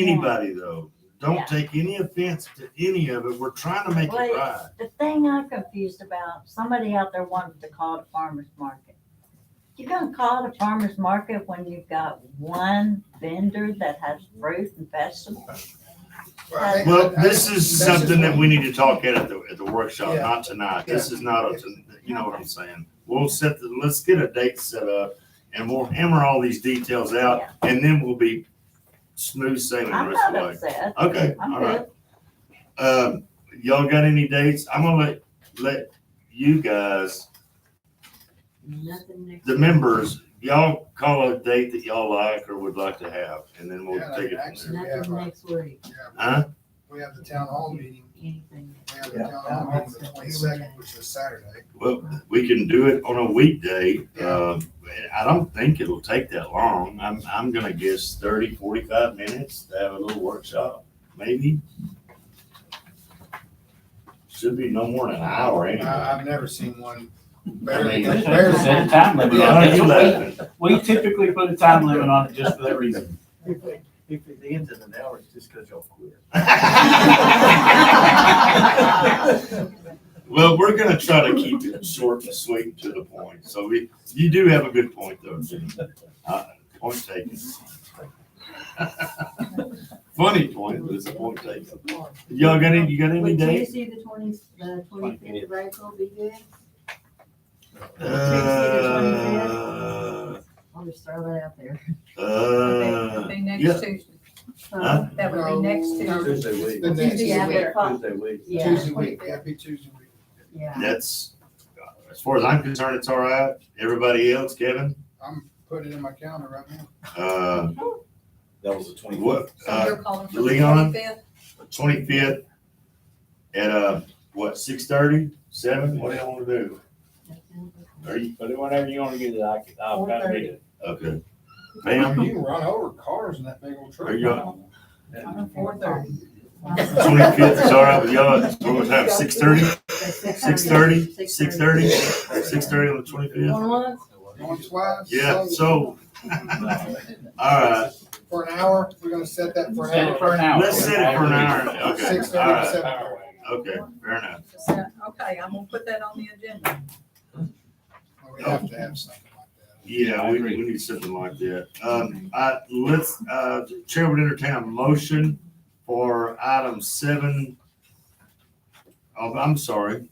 anybody though. Yeah. Don't take any offense to any of it. We're trying to make it Well, right. The thing I'm confused about, somebody out there wanted to call it a farmer's market. You're gonna call it a farmer's market when you've got one vendor that has fruit and vegetables? Right. Well, this is This is something that what- we need to talk at at the, at the workshop, Yeah. not tonight. This is not, a ton- you know what I'm saying? We'll set, the let's get a date set up and we'll hammer all these details out and then we'll be smooth sailing the I'm rest of not the way. upset. Okay, I'm all right. good. Um, y'all got any dates? I'm gonna let, let you guys, Nothing next. the members, y'all call a date that y'all like or would like to have and then we'll Yeah, like take it from action. there. Yeah, Nothing right. next week, Yeah, Huh? We have the town hall meeting, anything. we have the Yeah, town that hall meeting makes the sense. twenty-second, which is Saturday. Well, we can do it on a weekday. Um, I don't think it'll take that long. I'm, I'm gonna guess 30, 45 minutes to have a little workshop, maybe. Should be no more than an hour anyway. I, I've never seen one better I mean, than, There's better a than. set time limit on Are it. you laughing? We typically put a time limit on it just for that reason. If it ends in an hour, it's just because y'all quit. Well, we're gonna try to keep it short and sweet and to the point. So we, you do have a good point though, Jim. Uh, Point taken. Funny point, but it's a point taken. Y'all got any, you got any Would dates? Tuesday, the twenty, the twenty-fifth of April be good? Uh, I'll just throw that out there. uh, Be yeah. next Tuesday. Uh, Huh? That would be next No. Tuesday. Tuesday week. The next Tuesday week. after, five. Tuesday week. yeah, Tuesday week, that'd be Tuesday week. yeah. That's, as far as I'm concerned, it's all right. Everybody else, Kevin? I'm putting it in my calendar right now. Uh, That was the what, So uh, you're calling for the Leon? twenty-fifth? twenty-fifth at, uh, what, six thirty, seven? What do you wanna do? Are you, But whenever you wanna get it, I can, I've got it. okay. Pam, You can run over cars in that big old truck. There you go. Four thirty. twenty-fifth is all right with y'all? What time, six thirty? Six thirty? Six thirty? Six thirty on the twenty-fifth? Going once, Going twice. Yeah, so so, all right. For an hour, we're gonna set that for Set an it for hour. an hour. Let's set it for an hour. Okay, Six all thirty, right, seven hours. okay, fair enough. Okay, I'm gonna put that on the agenda. We have to have something like that. Yeah, we, we need something like that. Um, I, let's, uh, Chair would entertain a motion for item seven. Oh, I'm sorry,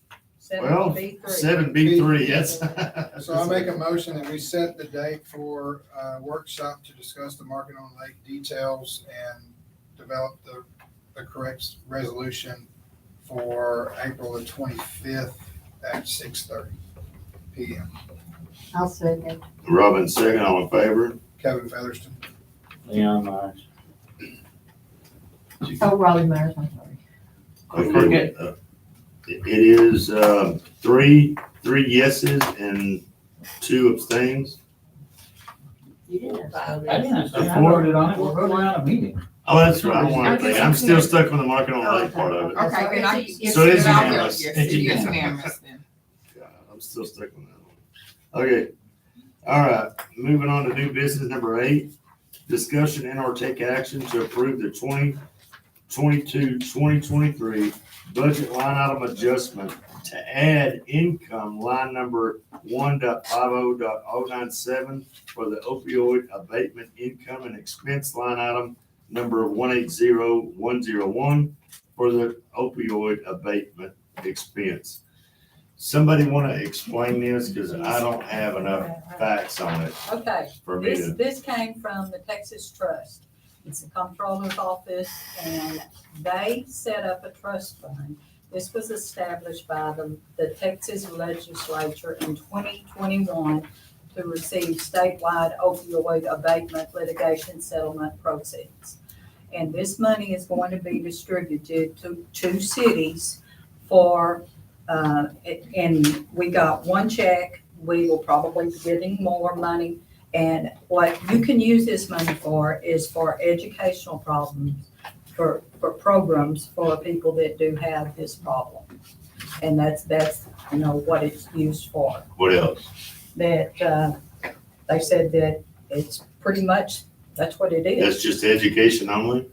Well, Seven B three. seven B three, yes. So I make a motion that we set the date for a workshop to discuss the market on lake details and develop the, the correct resolution for April the twenty-fifth at six thirty P M. I'll second. Robin, second, all in favor? Kevin Featherston. Leon, uh, I. Oh, Raleigh Myers, I'm sorry. Okay. uh, It it is, um, three, three yeses and two abstains. You didn't. I didn't understand. I Before- voted on it. We're voting on a meeting. Oh, that's right, I wanted to think, I'm still stuck on the market on lake part of it. Okay, good. I- So it is unanimous. It's unanimous. God, I'm still stuck on that one. Okay, all right, moving on to new business number eight. Discussion and or take action to approve the 2022-2023 budget line item adjustment to add income line number one oh for the opioid abatement income and expense line item number one eight zero one zero one for the opioid abatement expense. Somebody want to explain this because I don't have enough facts on it Okay, for me this, to. this came from the Texas Trust. It's the comptroller's office and they set up a trust fund. This was established by the, the Texas legislature in twenty twenty-one to receive statewide opioid abatement litigation settlement proceeds. And this money is going to be distributed to two cities for, uh, and we got one check. We will probably be getting more money and what you can use this money for is for educational problems, for, for programs for people that do have this problem. And that's, that's, you know, what it's used for. What else? That, uh, they said that it's pretty much, that's what it is. That's just education only?